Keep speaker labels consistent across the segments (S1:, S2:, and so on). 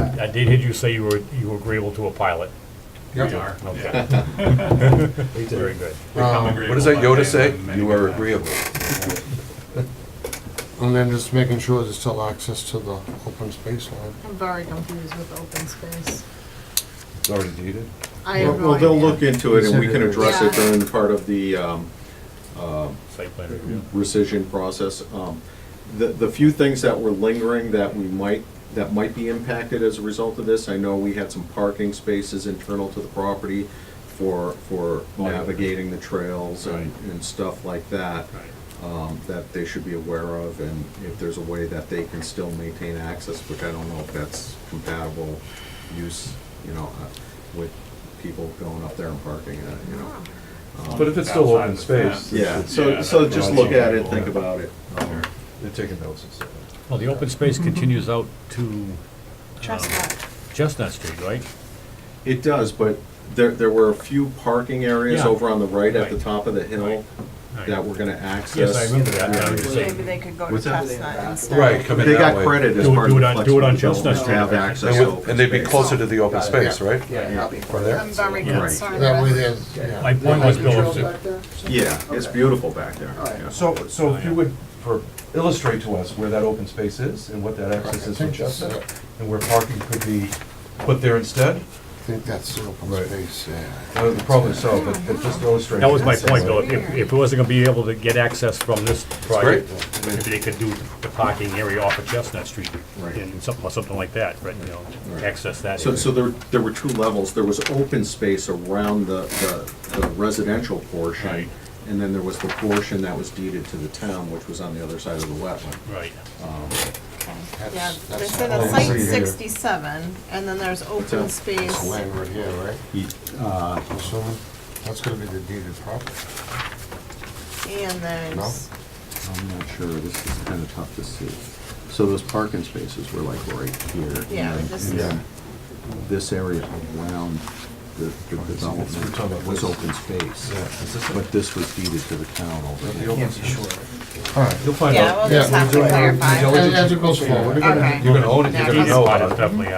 S1: I did hear you say you were, you were agreeable to a pilot.
S2: Yep.
S3: We are.
S1: Okay. Very good.
S3: Become
S2: Um,
S4: What does that
S3: agreeable by
S4: Yoda say?
S3: having many
S4: You are
S3: contacts.
S4: agreeable.
S2: And then just making sure there's still access to the open space line.
S5: I'm very confused with open space.
S4: It's already deeded.
S5: I have no
S6: Well, they'll
S5: idea.
S6: look into it and we can address it
S5: Yeah.
S6: during the part of the um,
S1: Site plan review.
S6: rescission process. Um, The, the few things that were lingering that we might, that might be impacted as a result of this, I know we had some parking spaces internal to the property for, for navigating the trails and, and stuff like that, um, that they should be aware of, and if there's a way that they can still maintain access, which I don't know if that's compatible use, you know, uh, with people going up there and parking, uh, you know.
S5: Oh,
S4: But if it's still
S3: Outside
S4: open
S3: the fence.
S4: space.
S6: Yeah,
S3: Yeah,
S6: so, so
S3: that's
S4: what
S6: just
S4: I'm
S6: look at
S4: saying.
S6: it, think about it. Um,
S4: They're taking notes and stuff.
S1: Well, the open space continues out to uh,
S5: Chestnut.
S1: Chestnut Street, right?
S6: It does, but there, there were a few parking areas
S1: Yeah.
S6: over on the right at the
S1: Right.
S6: top of the hill
S1: Right.
S6: that we're gonna
S1: Yes,
S6: access.
S1: I remember that. I was just saying,
S5: Maybe they could go to
S4: What's that?
S5: Chestnut instead.
S4: Right, come in
S6: They
S4: that
S6: got
S4: way.
S6: credit as
S1: Do it-
S6: part
S1: do
S6: of
S1: it
S6: the
S1: on- do it on
S6: flexible
S1: Chestnut Street.
S6: development to have access
S4: And
S6: to
S4: with-
S6: open
S4: And they'd be
S6: space.
S4: closer to the open
S7: Got it.
S4: space, right?
S7: Yeah,
S6: Yeah.
S4: From there?
S5: I'm very
S1: Yeah.
S5: concerned
S2: That way
S5: with
S2: there's,
S1: My
S2: yeah.
S1: point was, Bill,
S7: Trail back there?
S6: Yeah, it's
S7: Okay.
S6: beautiful back there.
S7: All right.
S6: yeah.
S4: So, so if you would for- illustrate to us where that open space is and what that access is from Chestnut, and where parking could be put there instead,
S2: I think that's the open
S4: Right.
S2: space, yeah.
S4: uh, probably so, but but just illustrate.
S1: that was my point, Bill. If, if it wasn't gonna be able to get access from this
S4: Great.
S1: project, if they could do the parking area off of Chestnut Street
S6: Right.
S1: and something, something like that, right, you know,
S6: Right.
S1: access that.
S6: So,
S1: area.
S6: so there, there were two levels. There was open space around the, the- the residential portion.
S1: Right.
S6: And then there was the portion that was deeded to the town, which was on the other side of the wetland.
S1: Right.
S5: that. Yeah,
S2: That's-
S5: they
S2: that's
S5: said
S2: all
S5: a
S2: we
S5: site
S4: see here.
S5: sixty-seven, and then there's open
S6: that?
S2: This
S5: space.
S2: land right here, right?
S4: uh,
S2: I'm Assuming, that's gonna be the deeded property.
S5: And there's,
S6: I'm not sure, this is kind of tough to see. So those parking spaces were like right here.
S5: yeah,
S6: and
S5: this is,
S6: then This area around the the development was open space, but this was deeded to the town over here.
S4: Can't be sure.
S2: All right.
S4: You'll find
S5: yeah,
S4: out.
S5: we'll Oh, just
S2: Yeah,
S5: have to
S2: we'll do it.
S4: We'll
S5: clarify.
S4: do
S2: As as it goes forward, you're gonna,
S5: Okay.
S4: You're gonna own it, you're gonna
S1: Deed
S4: know
S1: spot is
S4: about it.
S1: definitely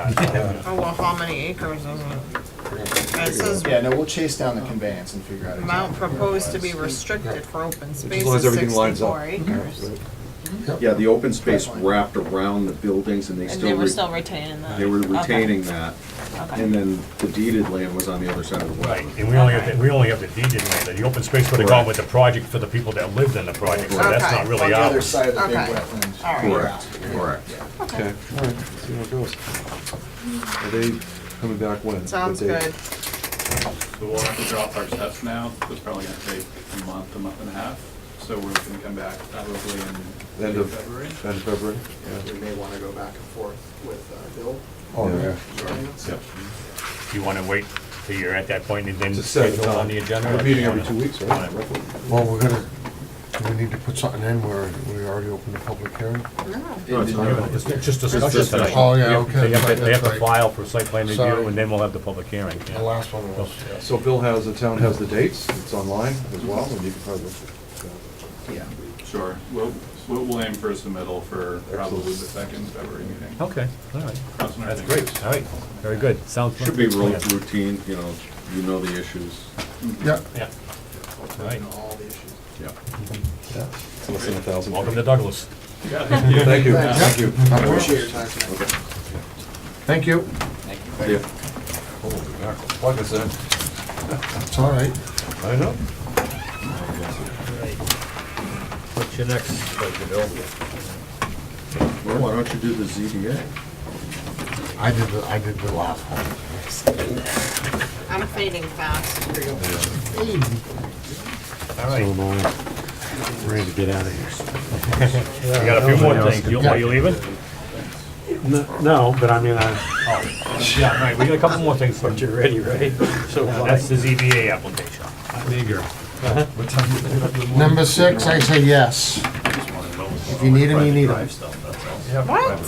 S1: on.
S5: Oh, well, how many acres is it? It says
S7: Yeah, no, we'll chase down the conveyance and figure out.
S5: amount
S7: exactly where it
S5: proposed to
S7: was.
S5: be restricted for open space
S4: As long as
S5: is
S4: everything lines up. Mm-hmm.
S5: sixty-four acres.
S6: Yeah, the open space wrapped around the buildings and they
S5: And they
S6: still,
S5: were
S6: re-
S5: still retaining that?
S6: they were
S5: Okay.
S6: retaining that.
S5: Okay.
S6: And then the deeded land was on the other side of the
S1: Right,
S6: wetland.
S1: and we only have, the- we only have the deed in there, the open space would have gone
S6: Correct.
S1: with the project for the people that lived in the project, so that's
S5: Okay.
S1: not
S7: On
S1: really
S7: the other
S1: ours.
S7: side of the big
S5: Okay.
S7: wetlands.
S5: All right.
S6: Correct, correct.
S4: Okay, all right, see how it goes. Are they coming back when? What
S5: Sounds
S4: date?
S5: good.
S3: So we'll have to drop our steps now, it's probably gonna take a month, a month and a half, so we're gonna come back probably in
S4: End
S3: late
S4: of-
S3: February.
S4: End of February?
S7: We may want to go back and forth with uh, Bill.
S4: Oh, yeah.
S7: Sorry.
S4: Yep.
S1: Do you want to wait till you're at that point and then
S4: Just set it
S1: schedule on the agenda?
S4: We're
S1: or do you
S4: meeting every
S1: wanna-
S4: two weeks, right? Roughly.
S2: well, we're gonna, do we need to put something in where we already opened the public hearing?
S5: No.
S1: It's just discussion tonight.
S2: Oh, yeah,
S1: They have-
S2: okay,
S1: They have to, they have to
S2: that's right.
S1: file for site plan review,
S2: Sorry.
S1: and then we'll have the public hearing. yeah.
S2: The last one was,
S4: So Bill has, the town has the dates, it's online as well, and you can probably.
S7: Yeah.
S3: Sure, we'll, we'll we'll aim for a submittal for probably the second February meeting.
S1: Okay, all right,
S3: That's what I
S1: that's
S3: think.
S1: great, all right, very good, sounds.
S6: Should be real
S1: Yeah.
S6: routine, you know, you know the issues.
S2: yeah,
S1: Yeah, all right,
S7: All the issues.
S6: Yeah.
S4: It's less than a thousand.
S1: welcome to Douglas.
S3: Yeah, thank you.
S4: Thank you,
S7: Thanks.
S4: thank you.
S7: I appreciate your time tonight.
S2: thank you,
S6: Yeah.
S4: Holy mackerel. Plug us in.
S2: it's all right.
S4: I know.
S1: What's your next, Dr. Bill?
S6: Well, why don't you do the ZBA?
S2: I did, the I did the last one.
S5: I'm fading fast.
S1: All right,
S2: Ready to get out of
S1: you got a few more things, You- are you leaving?
S2: here. No, but I mean, I.
S1: Yeah, Oh, all right, we got a couple more things. But you're ready, right? So that's the ZBA application.
S2: Number six, I say yes. If you need 'em, you need 'em.
S5: What?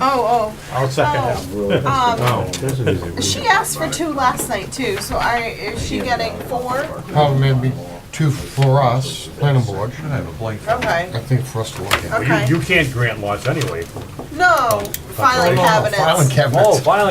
S5: Oh,
S1: I'll second that.
S5: oh. Um, she asked for two last night too, so I, is she getting four?
S2: Probably maybe two for us, planning board,
S4: I have a blank.
S5: Okay,
S2: I think for us to look at.
S1: Well, You,
S5: okay.
S1: you can't grant lots anyway. Oh,
S5: No,
S2: Filing
S5: filing cabinets.
S2: cabinets.
S1: filing